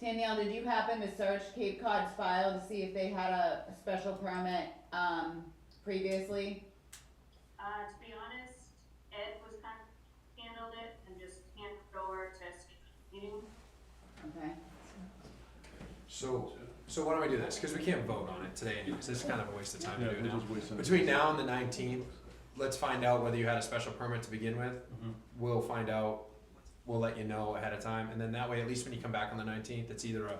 Danielle, did you happen to search Cape Cod's file to see if they had a special permit, um, previously? Uh, to be honest, Ed was kind of handled it and just handed it over to meeting. Okay, So, so why don't we do this? Because we can't vote on it today anyways. It's kind of a waste of time Yeah, to do it we're now. just wasting it. Between now and the nineteenth, let's find out whether you had a special permit to begin with. Mhm. We'll find out. We'll let you know ahead of time, and then that way, at least when you come back on the nineteenth, it's either a,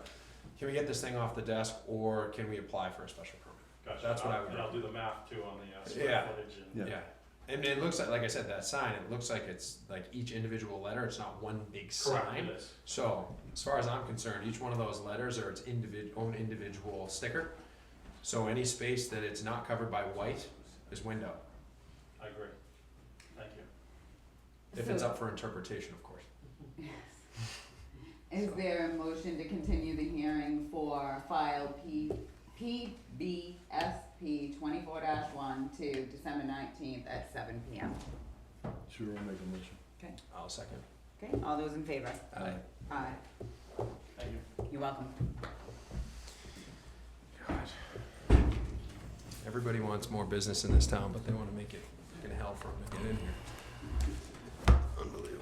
can we get this thing off the desk, or can we apply for a special permit? Gotcha. That's what I and I'll- would And I'll do the math too on the uh, Yeah. square footage and. Yeah. Yeah. And it looks like, like I said, that sign. It looks like it's like each individual letter. It's not one big Correct, sign. it is. So, as far as I'm concerned, each one of those letters are its individ- own individual sticker. So any space that it's not covered by white is window, I agree. Thank you. if it's up for interpretation, of course. is there a motion to continue the hearing for file P, PBSP twenty-four one to December nineteenth at seven P M? Sure, I'll make a motion. I'll second. Okay, all those in favor? Aye. Aye. Thank you. You're welcome. Everybody wants more business in this town, but they wanna make it, fucking hell for them to get in here. Unbelievable.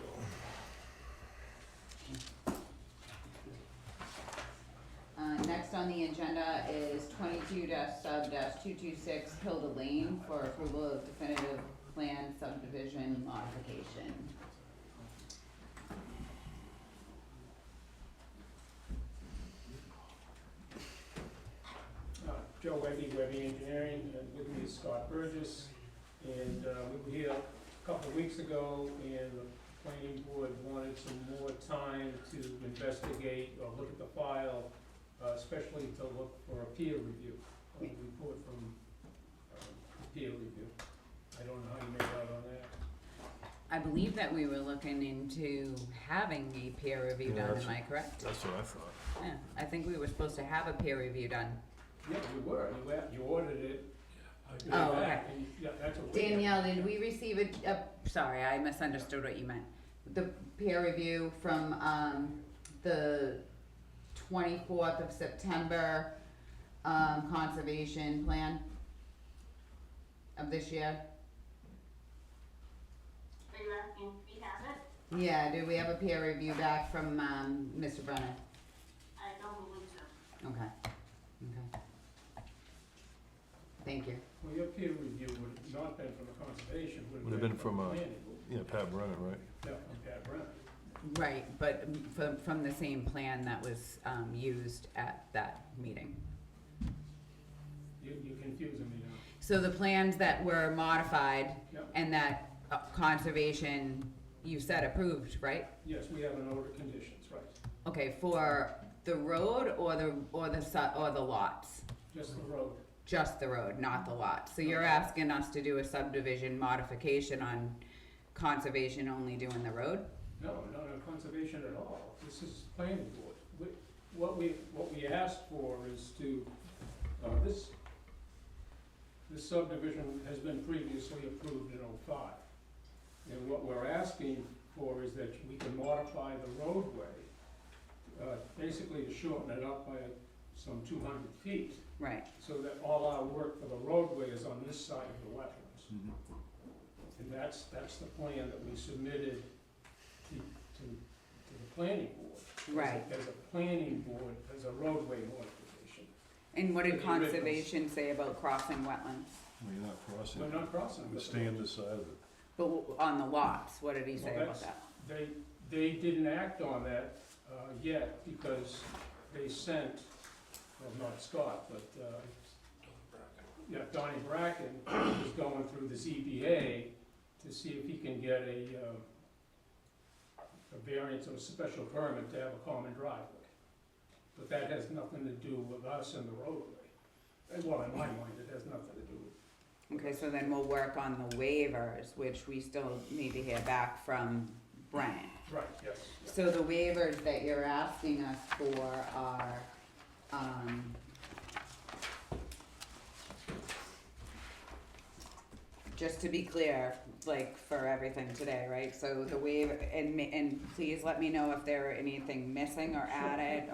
Uh, next on the agenda is twenty-two sub two-two-six Hilda Lane for approval of definitive plan subdivision modification. Uh, Joe Webby, Webby Engineering, and with me is Scott Burgess. And uh, we were here a couple of weeks ago, and the planning board wanted some more time to investigate or look at the file, uh, especially to look for a peer review, a report from um, peer review. I don't know how you made out on that. I believe that we were looking into having a peer review done, Yeah, that's- am I correct? That's what I thought. Yeah, I think we were supposed to have a peer review done. Yeah, you were, you a- you ordered it. You Oh, went back, and you- Yeah, that's what we. Danielle, did we receive a, a, sorry, I misunderstood what you meant. The peer review from, um, the twenty-fourth of September, um, conservation plan of this year? Are you asking if we have it? Yeah, do we have a peer review back from, um, Mr. Brennan? I don't believe so. Okay, okay. Thank you. Well, your peer review would have not been from the conservation, would Would have been from uh, planning. board. Yeah, Pat Brennan, right? Yeah, from Pat Brown. Right, but from, from the same plan that was, um, used at that meeting. You, you're confusing me now. So the plans that were modified Yep. and that uh, conservation, you said approved, right? Yes, we have an order of conditions, right, Okay, for the road or the, or the su- or the lots? just the road. Just the road, not the lots. So you're asking us to do a subdivision modification on conservation only doing the road? No, not on conservation at all, this is planning board. We- What we, what we asked for is to, uh, this, this subdivision has been previously approved in oh-five. And what we're asking for is that we can modify the roadway, uh, basically to shorten it up by some two hundred feet. Right, so that all our work for the roadway is on this side of the wetlands. Mm-hmm. And that's, that's the plan that we submitted to, to, to the planning board. right. As a planning board, as a roadway modification. And what did The originals. conservation say about crossing wetlands? Well, you're not crossing. We're not crossing. We stay on this side of it. But w- on the lots, what did he say Well, about that's- that? They, they didn't act on that, uh, yet because they sent, well, not Scott, but, uh, yeah, Donnie Bracken is going through the ZBA to see if he can get a, um, a variance or a special permit to have a common driveway. But that has nothing to do with us and the roadway. Uh, Well, in my mind, it has nothing to do with Okay, so then we'll work on the waivers, which we still need to hear back from Brennan. Right, yes. yeah. So the waivers that you're asking us for are, um, just to be clear, like for everything today, right? So the waiver, and ma- and please let me know if there are anything missing or added